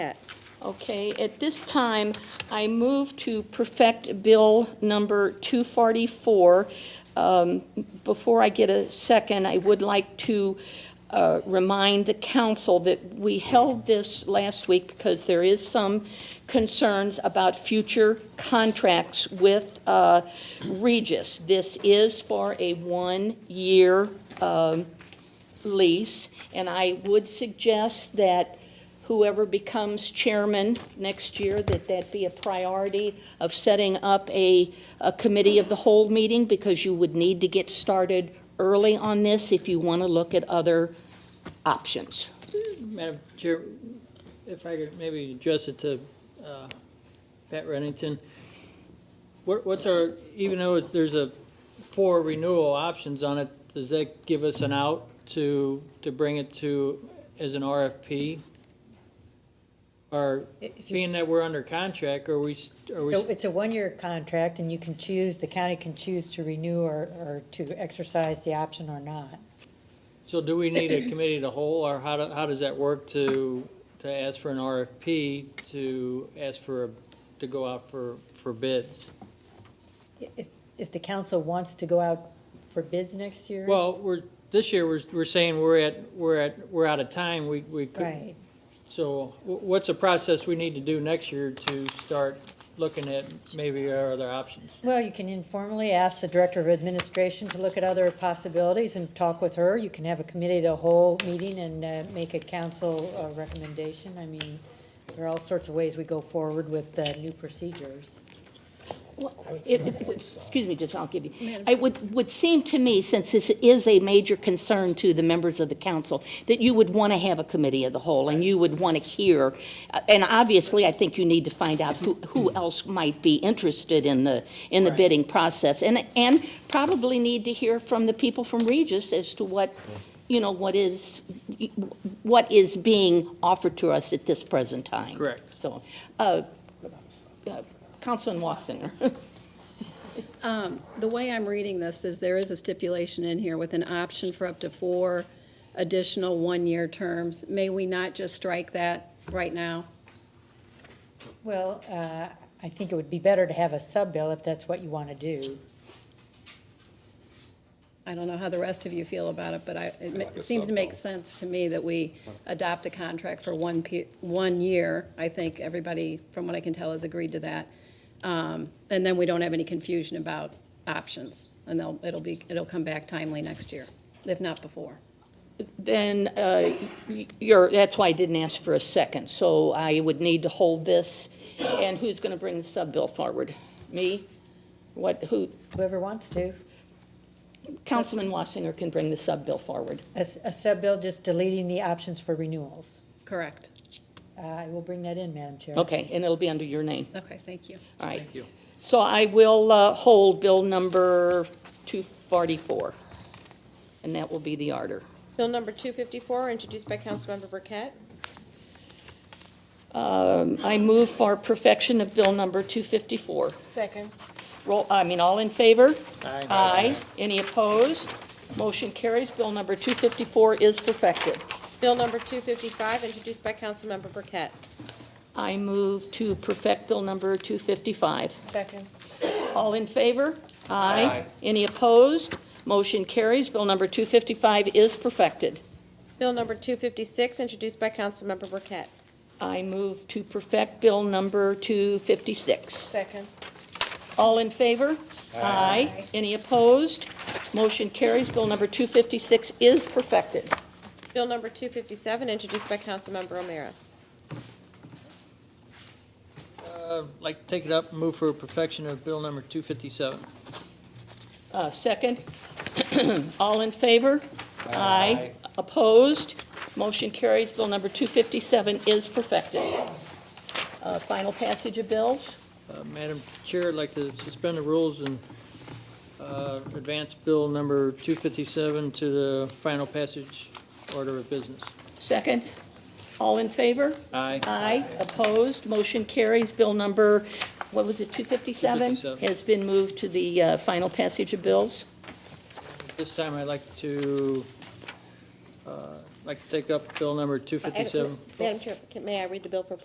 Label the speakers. Speaker 1: Okay, at this time, I move to perfect Bill number 244. Um, Before I get a second, I would like to uh, remind the council that we held this last week because there is some concerns about future contracts with uh, Regis. This is for a one-year um, lease, and I would suggest that whoever becomes chairman next year, that that be a priority of setting up a, a committee of the whole meeting, because you would need to get started early on this if you want to look at other options.
Speaker 2: Madam Chair, if I could maybe address it to uh, Pat Reddington. What- What's our, even though it's- there's a four renewal options on it, does that give us an out to, to bring it to, as an RFP? Or
Speaker 3: If you-
Speaker 2: being that we're under contract, are we, s- are we,
Speaker 3: So
Speaker 2: s-
Speaker 3: it's a one-year contract, and you can choose, the county can choose to renew or, or to exercise the option or not.
Speaker 2: so do we need a committee to whole, or how, do- how does that work to, to ask for an RFP, to ask for, a- to go out for, for bids?
Speaker 3: If, if the council wants to go out for bids next year?
Speaker 2: Well, we're, this year, we're, we're saying we're at, we're at, we're out of time, we, we could.
Speaker 3: Right,
Speaker 2: So wh- what's the process we need to do next year to start looking at maybe our other options?
Speaker 3: well, you can informally ask the Director of Administration to look at other possibilities and talk with her. You can have a committee, of the whole meeting, and uh, make a council uh, recommendation. I mean, there are all sorts of ways we go forward with uh, new procedures.
Speaker 1: Well, it- it would- Excuse me, just, I'll give you. It would, would seem to me, since this is a major concern to the members of the council, that you would want to have a committee of the whole, and you would want to hear, uh, and obviously, I think you need to find out who, who else might be interested in the, in the
Speaker 2: Mm-hmm. Right.
Speaker 1: bidding process, and, and probably need to hear from the people from Regis as to what, you know, what is, what is being offered to us at this present time.
Speaker 2: Correct.
Speaker 1: So, uh, uh, Councilman Wassinger.
Speaker 4: The way I'm reading this is there is a stipulation in here with an option for up to four additional one-year terms. May we not just strike that right now?
Speaker 3: Well, uh, I think it would be better to have a sub-bill if that's what you want to do.
Speaker 4: I don't know how the rest of you feel about it, but I, it ma-
Speaker 5: like a
Speaker 4: it seems to make
Speaker 5: sub-vote.
Speaker 4: sense to me that we adopt a contract for one pe, one year. I think everybody, from what I can tell, has agreed to that. Um, and then we don't have any confusion about options, and they'll, it'll be, it'll come back timely next year, if not before.
Speaker 1: Then, uh, y- you're, that's why I didn't ask for a second, so I would need to hold this. And who's going to bring the sub-bill forward? Me? What, who,
Speaker 3: Whoever wants to.
Speaker 1: Councilman Wassinger can bring the sub-bill forward.
Speaker 3: A, s- a sub-bill just deleting the options for renewals.
Speaker 4: Correct.
Speaker 3: Uh, I will bring that in, Madam Chair.
Speaker 1: Okay, and it'll be under your name,
Speaker 4: Okay, thank you.
Speaker 1: all right.
Speaker 2: Thank you.
Speaker 1: So I will uh, hold bill number 244, and that will be the order.
Speaker 6: Bill number 254, introduced by Councilmember Burkett.
Speaker 1: Um, I move for perfection of bill number 254.
Speaker 6: Second.
Speaker 1: Roll, I mean, all in favor?
Speaker 2: Aye.
Speaker 1: Aye. Any opposed? Motion carries. Bill number 254 is perfected.
Speaker 6: Bill number 255, introduced by Councilmember Burkett.
Speaker 1: I move to perfect Bill number 255.
Speaker 6: Second.
Speaker 1: All in favor? Aye. Any opposed? Motion carries. Bill number 255 is perfected.
Speaker 6: Bill number 256, introduced by Councilmember Burkett.
Speaker 1: I move to perfect Bill number 256.
Speaker 6: Second.
Speaker 1: All in favor? Aye. Any opposed? Motion carries. Bill number 256 is perfected.
Speaker 6: Bill number 257, introduced by Councilmember O'Meara.
Speaker 2: Uh, like, to take it up, and move for perfection of bill number two fifty-seven.
Speaker 1: Uh, Second. All in favor? Aye. Opposed? Motion carries. Bill number 257 is perfected. Uh, Final passage of bills.
Speaker 2: Uh, Madam Chair, I'd like to suspend the rules and, uh, advance bill number two fifty-seven to the final passage order of business.
Speaker 1: Second. All in favor?
Speaker 2: Aye.
Speaker 1: Aye. Opposed? Motion carries. Bill number, what was it, 257?
Speaker 2: 257.
Speaker 1: Has been moved to the uh, final passage of bills.
Speaker 2: This time I'd like to, uh, like to take up bill number 257.
Speaker 6: Madam Chair, can- may I read the bill for